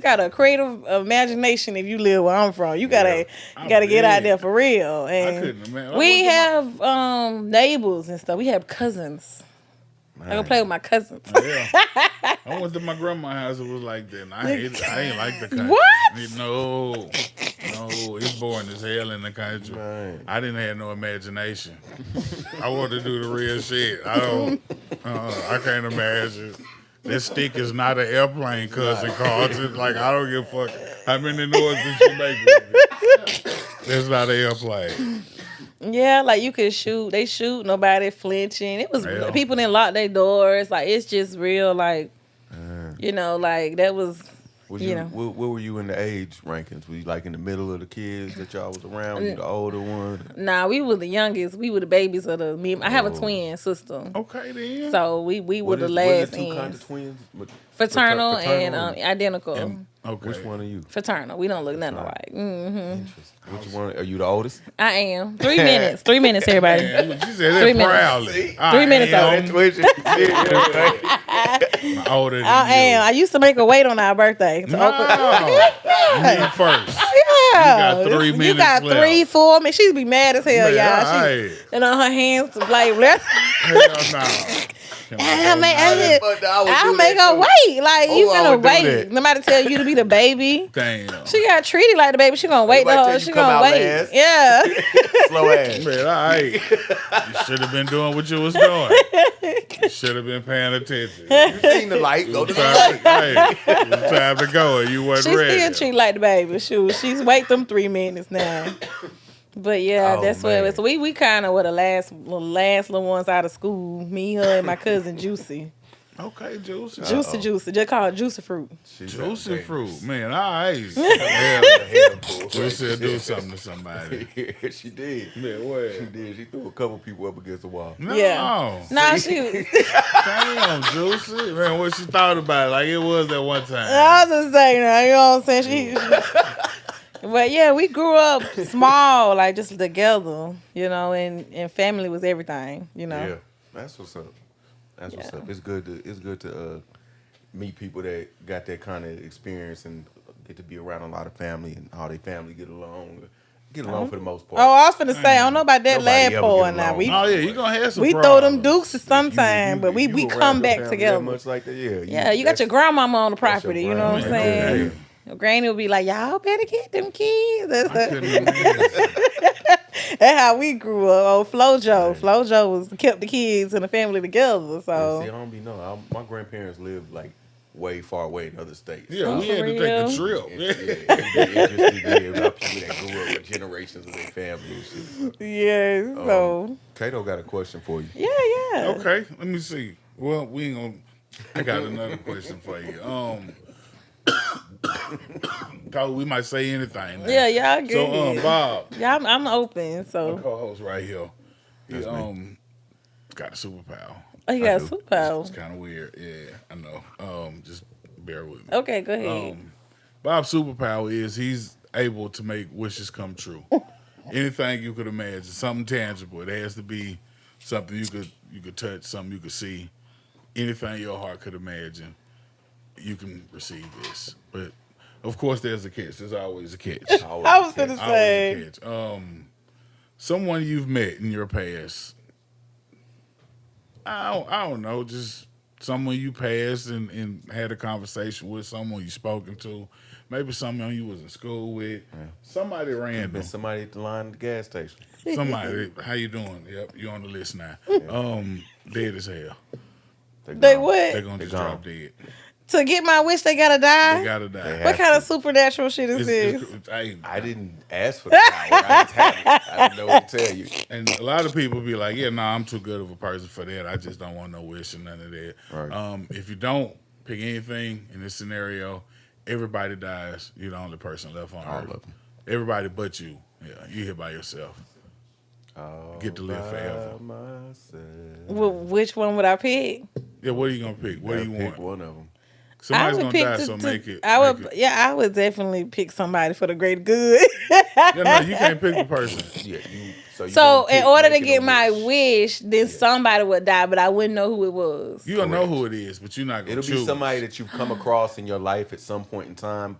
got a creative imagination if you live where I'm from. You gotta Yeah, I you gotta get out did. there for real. And couldn't imagine. I we wouldn't have do um neighbors and stuff. We have cousins. I go play with my cousins. Yeah. I went to my grandma's house. It was like that. And I hate, I ain't like the country. What? No, no, it's boring as hell in the country. Right. I didn't have no imagination. I want to do the real shit. I don't. Uh, I can't imagine. This stick is not an airplane, cousin Carlton. Like I don't give a fuck how many noises you make. With it. That's not an airplane. yeah, like you could shoot. They shoot, nobody flinching. It was Yeah. people didn't lock their doors. Like it's just real, like you know, like that was Was You you, know. where, where were you in the age rankings? Were you like in the middle of the kids that y'all was around? Were you the older one? nah, we were the youngest. We were the babies of the me. I have a Oh. twin sister. Okay then. So we we were What the is- what is last the two kinds ends. of twins? What- Fraternal, frater- fraternal and um, Mm-hmm. and- identical. And- okay. Which one are you? Fraternal. We don't look nothing alike. Mm, Interesting. Which one are you the oldest? I am. Three minutes. Three minutes, everybody. Yeah, you- you said Three that minutes. proudly. I Three minutes am That's Older than I you. am. I used to make a wait on our birthday. So No, Oakland- you first. yeah. You got three You got minutes left. three, four minutes. She'd be mad as hell, Man, y'all. She, aight. and on her hands, like, let's, Hell no. I'll make, Nah, I'll, I'll make her wait. Like, you Oh, I gonna would do wait. that. Nobody tell you to be the baby. Damn. She got treated like the baby. She gonna wait the Everybody tell whole. you She come gonna out wait. last. Yeah. Slow ass. Man, all right. You should have been doing what you was doing. You should have been paying attention. It You seen the light? Go was to time to, hey, it was time to go, and you wasn't She still ready. treat like the baby. Shoot, she's wait them three minutes now. But yeah, Oh, that's what it man. was. We we kind of were the last the last little ones out of school. Me, her, and my cousin Juicy, okay, Juicy. Uh, Juicy, Juicy. Just call it Juicy Fruit. Juicy fruit. Man, all right. Juicy will do something to somebody. she did. Man, She what? did. She threw a couple people up against the wall. No. Yeah. Nah, she. Damn, Juicy. Man, what she thought about it, like it was that one time. I was just saying, that, you know what I'm saying? She. But yeah, we grew up small, like just together, you know, and, and family was everything, you know. Yeah, that's what's up. That's what's Yeah. up. It's good to it's good to uh, meet people that got that kind of experience and get to be around a lot of family and how they family get along, get along for the most part. Oh, I was finna say, I don't know about that Nobody lad ever boy get now. along. We Oh yeah, you gonna have some. we throw them problems. dukes sometime, but we, if we around come your back family together. That much like that, yeah. yeah, you got your that's- grandmama on the that's property. your You know what I'm grandma. Yeah. saying? Your granny would be like, "Y'all better get them kids." That's, I the, couldn't imagine. that's how we grew up. Oh, FloJo, FloJo was kept the kids and the family together. Yeah, See, I So don't be no. I, my grandparents live like way far away in other states. Yeah, Oh, we for had to real? take a trip. It's, yeah, it'd be interesting to hear about people that grew up with generations of their family and shit. yeah, so Kato got a question for you. yeah, yeah. Oh. Okay, let me see. Well, we ain't gonna. I got another question for you. Um, Cole, we might say anything. Now. Yeah, y'all good. So, um, Bob, yeah, I'm, I'm open. my So co-host right here, he um got a superpower. oh, you got do. It's superpower. kind of weird. Yeah, I know. Um, just bear with me. Okay, go ahead. Um, Bob's superpower is he's able to make wishes come true. Anything you could imagine, something tangible. It has to be something you could you could touch, something you could see. Anything your heart could imagine, you can receive this. But of course, there's a catch. There's always a catch. How I was gonna Always a say, catch. Um, someone you've met in your past. I don't, I don't know, just someone you passed and, and had a conversation with, someone you spoken to, maybe someone you was in school with, somebody random, Been somebody at the line at the gas station. somebody. How you doing? Yep, you on the list now. Um, dead as hell. they gone. They're what gonna They just gone. drop dead. to get my wish? They gotta They die. gotta They die. have what kind of supernatural shit is It's- this? it's- it's- hey, I didn't ask for the power. I just had it. I didn't know what to tell you. And a lot of people be like, yeah, no, I'm too good of a person for that. I just don't want no wish and none of that. Right. Um, if you don't pick anything in this scenario, everybody dies. You're the only person left on All earth. of 'em. Everybody but you. Yeah, you here by yourself. Get to live By forever. myself. Wh- which one would I pick? Yeah, what are you gonna pick? What do Gotta you want? pick One of them. Somebody's I gonna would pick die, the, so the- make it. I would, make it- yeah, I would definitely pick somebody for the great good. Yeah, no, you can't pick the person. Yeah, you. you So gonna in pick order to making a get my wish. wish, then somebody would die, but I wouldn't know who it was. You don't know Correct. who it is, but you're not gonna it'll choose. be somebody that you've come across in your life at some point in time,